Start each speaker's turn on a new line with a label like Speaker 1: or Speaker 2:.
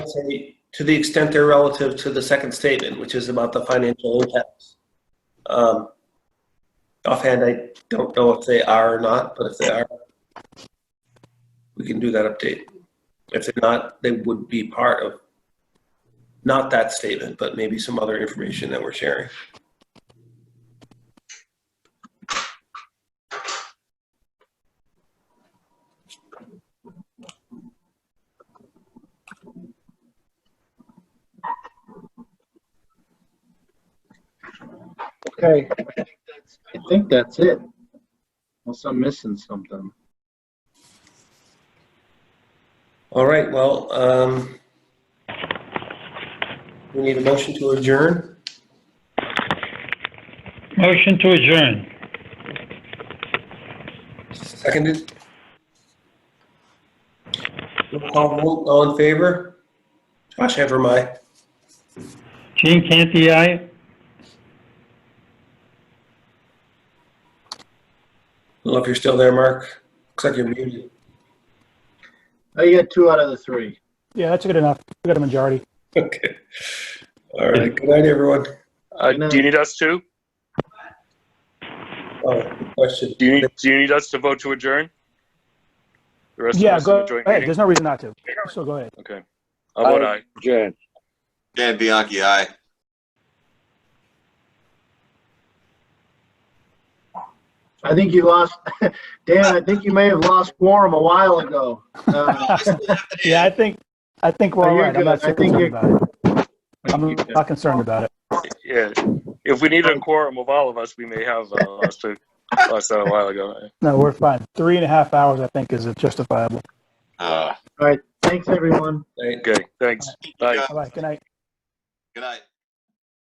Speaker 1: say, to the extent they're relative to the second statement, which is about the financial impacts. Um, Offhand, I don't know if they are or not, but if they are, we can do that update. If they're not, they would be part of, not that statement, but maybe some other information that we're sharing.
Speaker 2: Okay, I think that's- I think that's it. Unless I'm missing something.
Speaker 1: All right, well, um, we need a motion to adjourn.
Speaker 3: Motion to adjourn.
Speaker 1: Seconded. Roll call vote, all in favor? Josh Antrim, aye.
Speaker 3: Gene Canty, aye.
Speaker 1: Well, if you're still there, Mark, looks like you're muted.
Speaker 2: Oh, you got two out of the three.
Speaker 4: Yeah, that's good enough. We got a majority.
Speaker 1: Okay. All right, good night, everyone.
Speaker 5: Uh,
Speaker 2: No.
Speaker 5: do you need us to?
Speaker 1: Oh, good question.
Speaker 5: Do you need, do you need us to vote to adjourn? The rest of
Speaker 4: Yeah,
Speaker 5: us in the
Speaker 4: go
Speaker 5: joint
Speaker 4: ahead.
Speaker 5: meeting?
Speaker 4: There's no reason not to. So go ahead.
Speaker 5: Okay. How about I?
Speaker 3: Adjourn.
Speaker 6: Dan Bianchi, aye.
Speaker 2: I think you lost, Dan, I think you may have lost quorum a while ago. Uh,
Speaker 4: Yeah, I think, I think we're
Speaker 2: No,
Speaker 4: all
Speaker 2: you're
Speaker 4: right. I'm
Speaker 2: good.
Speaker 4: not
Speaker 2: I
Speaker 4: so
Speaker 2: think
Speaker 4: concerned
Speaker 2: you're-
Speaker 4: about it. I'm not concerned about it.
Speaker 5: Yeah. If we needed a quorum of all of us, we may have uh, us to, us a while ago.
Speaker 4: No, we're fine. Three and a half hours, I think, is justifiable.
Speaker 6: Uh,
Speaker 2: All right, thanks, everyone.
Speaker 1: Night.
Speaker 5: Okay, thanks. Bye.
Speaker 4: All right, good night.
Speaker 6: Good night.